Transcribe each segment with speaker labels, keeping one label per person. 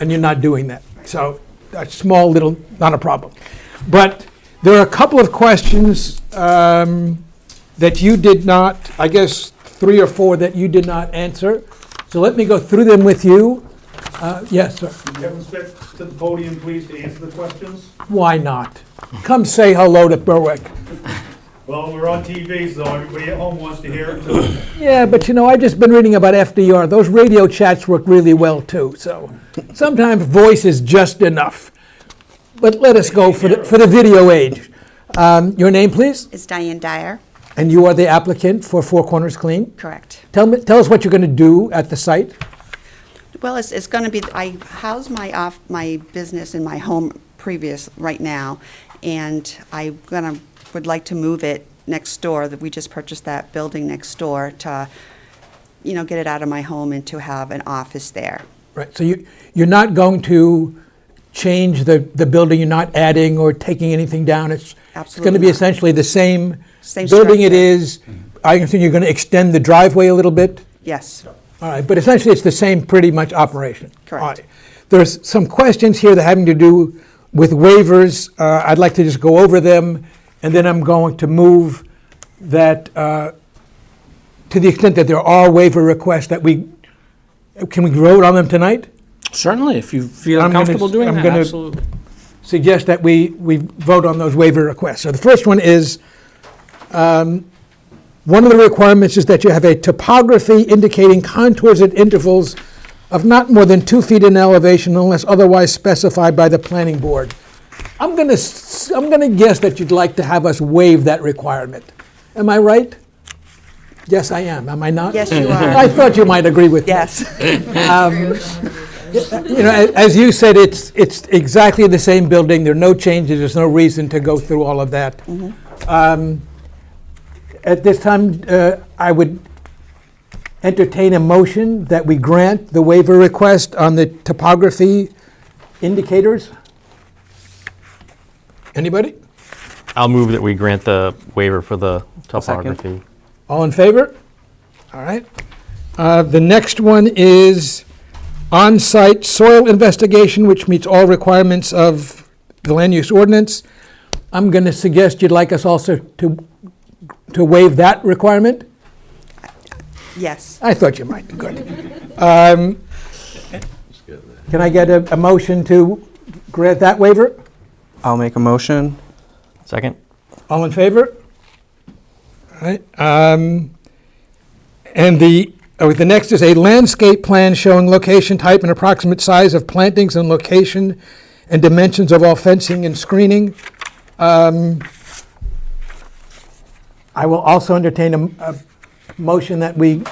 Speaker 1: and you're not doing that. So a small little, not a problem. But there are a couple of questions um, that you did not, I guess, three or four that you did not answer. So let me go through them with you. Uh, Yes, sir.
Speaker 2: Kevin Spick, to the podium, please, to answer the questions.
Speaker 1: Why not? Come say hello to Berwick.
Speaker 2: Well, we're on TV, so everybody at home wants to hear it, so
Speaker 1: Yeah, but you know, I've just been reading about FDR. Those radio chats work really well too. So sometimes voice is just enough. But let us go for the, for the video age. Um, your name, please,
Speaker 3: It's Diane Dyer,
Speaker 1: and you are the applicant for Four Corners Clean.
Speaker 3: correct.
Speaker 1: Tell me, tell us what you're going to do at the site.
Speaker 3: Well, it's, it's going to be, I house my off, my business in my home previous, right now, and I'm going to, would like to move it next door, that we just purchased that building next door to, you know, get it out of my home and to have an office there.
Speaker 1: Right. So you you're not going to change the, the building. You're not adding or taking anything down. It's it's going to
Speaker 3: Absolutely
Speaker 1: be
Speaker 3: not.
Speaker 1: essentially the same,
Speaker 3: Same
Speaker 1: building it
Speaker 3: structure. Mm-hmm.
Speaker 1: is. I assume you're going to extend the driveway a little bit.
Speaker 3: Yes,
Speaker 1: All right, but essentially, it's the same pretty much operation.
Speaker 3: Correct.
Speaker 1: All right. There's some questions here that having to do with waivers. Uh, I'd like to just go over them, and then I'm going to move that, uh, to the extent that there are waiver requests, that we, can we vote on them tonight?
Speaker 4: Certainly, if you feel
Speaker 1: I'm gonna-
Speaker 4: comfortable doing
Speaker 1: I'm
Speaker 4: that,
Speaker 1: gonna-
Speaker 4: absolutely.
Speaker 1: suggest that we, we vote on those waiver requests. So the first one is, um, one of the requirements is that you have a topography indicating contours at intervals of not more than two feet in elevation unless otherwise specified by the planning board. I'm gonna, s- I'm gonna guess that you'd like to have us waive that requirement. Am I right? Yes, I am. Am I not?
Speaker 3: Yes, you are.
Speaker 1: I thought you might agree with me
Speaker 3: yes,
Speaker 1: you know, a- as you said, it's, it's exactly the same building, there are no changes, there's no reason to go through all of that. Um, At this time, uh, I would entertain a motion that we grant the waiver request on the topography indicators. Anybody?
Speaker 5: I'll move that we grant the waiver for the topography.
Speaker 1: All in favor? All right. Uh, The next one is on-site soil investigation, which meets all requirements of the land use ordinance. I'm going to suggest you'd like us also to, to waive that requirement?
Speaker 3: yes.
Speaker 1: I thought you might, good. Um, Can I get a, a motion to grant that waiver?
Speaker 6: I'll make a motion.
Speaker 5: Second?
Speaker 1: All in favor? All right, um, and the, oh, the next is a landscape plan showing location type and approximate size of plantings and location and dimensions of all fencing and screening. Um, I will also entertain a, m- a motion that we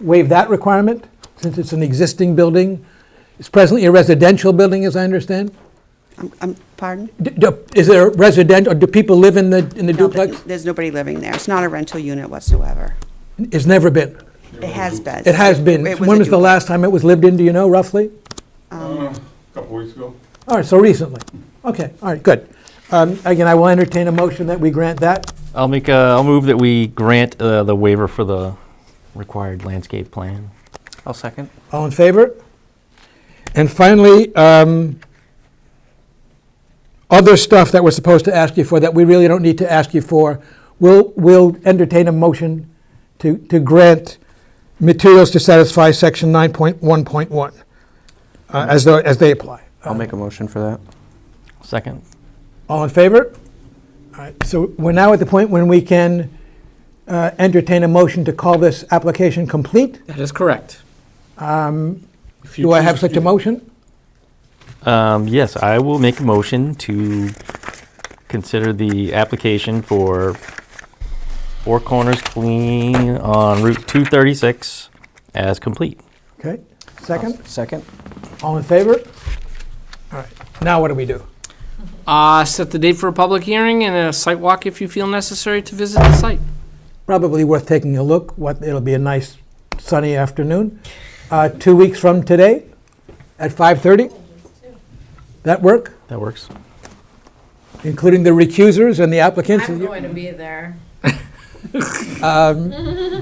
Speaker 1: waive that requirement, since it's an existing building. It's presently a residential building, as I understand.
Speaker 3: I'm, I'm- Um, pardon?
Speaker 1: D- d- Is there resident, or do people live in the, in the
Speaker 3: No, there-
Speaker 1: duplex?
Speaker 3: There's nobody living there. It's not a rental unit whatsoever.
Speaker 1: It's never been.
Speaker 3: It has been.
Speaker 1: It has been.
Speaker 3: It
Speaker 1: When
Speaker 3: a
Speaker 1: was the
Speaker 3: duplex.
Speaker 1: last time it was lived in, do you know, roughly?
Speaker 7: couple weeks ago.
Speaker 1: All right, so recently. Okay, all right, good. Um, Again, I will entertain a motion that we grant that.
Speaker 5: I'll make, a- I'll move that we grant uh, the waiver for the required landscape plan.
Speaker 6: I'll second.
Speaker 1: All in favor? And finally, um, other stuff that we're supposed to ask you for that we really don't need to ask you for, we'll, we'll entertain a motion to, to grant materials to satisfy section 9.1.1 uh, as though, as they apply.
Speaker 6: I'll make a motion for that.
Speaker 5: Second?
Speaker 1: All in favor? All right, so we're now at the point when we can uh, entertain a motion to call this application complete.
Speaker 4: That is correct. If you
Speaker 1: Do I
Speaker 4: choose
Speaker 1: have
Speaker 4: to
Speaker 1: such
Speaker 4: do
Speaker 1: a motion?
Speaker 5: Um, Yes, I will make a motion to consider the application for Four Corners Clean on Route 236 as complete.
Speaker 1: Okay, second,
Speaker 6: Second.
Speaker 1: all in favor? All right, now what do we do?
Speaker 4: Uh, set the date for a public hearing and a site walk if you feel necessary to visit the site.
Speaker 1: Probably worth taking a look, what, it'll be a nice sunny afternoon. Uh, Two weeks from today, at 5:30? That work,
Speaker 5: That works?
Speaker 1: including the recusers and the applicants?
Speaker 8: I'm going to be there.
Speaker 1: Um,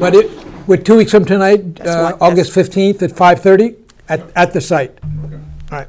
Speaker 1: But it, we're two weeks from tonight,
Speaker 3: That's
Speaker 1: uh,
Speaker 3: what-
Speaker 1: August 15th at 5:30 at, at the site. All right,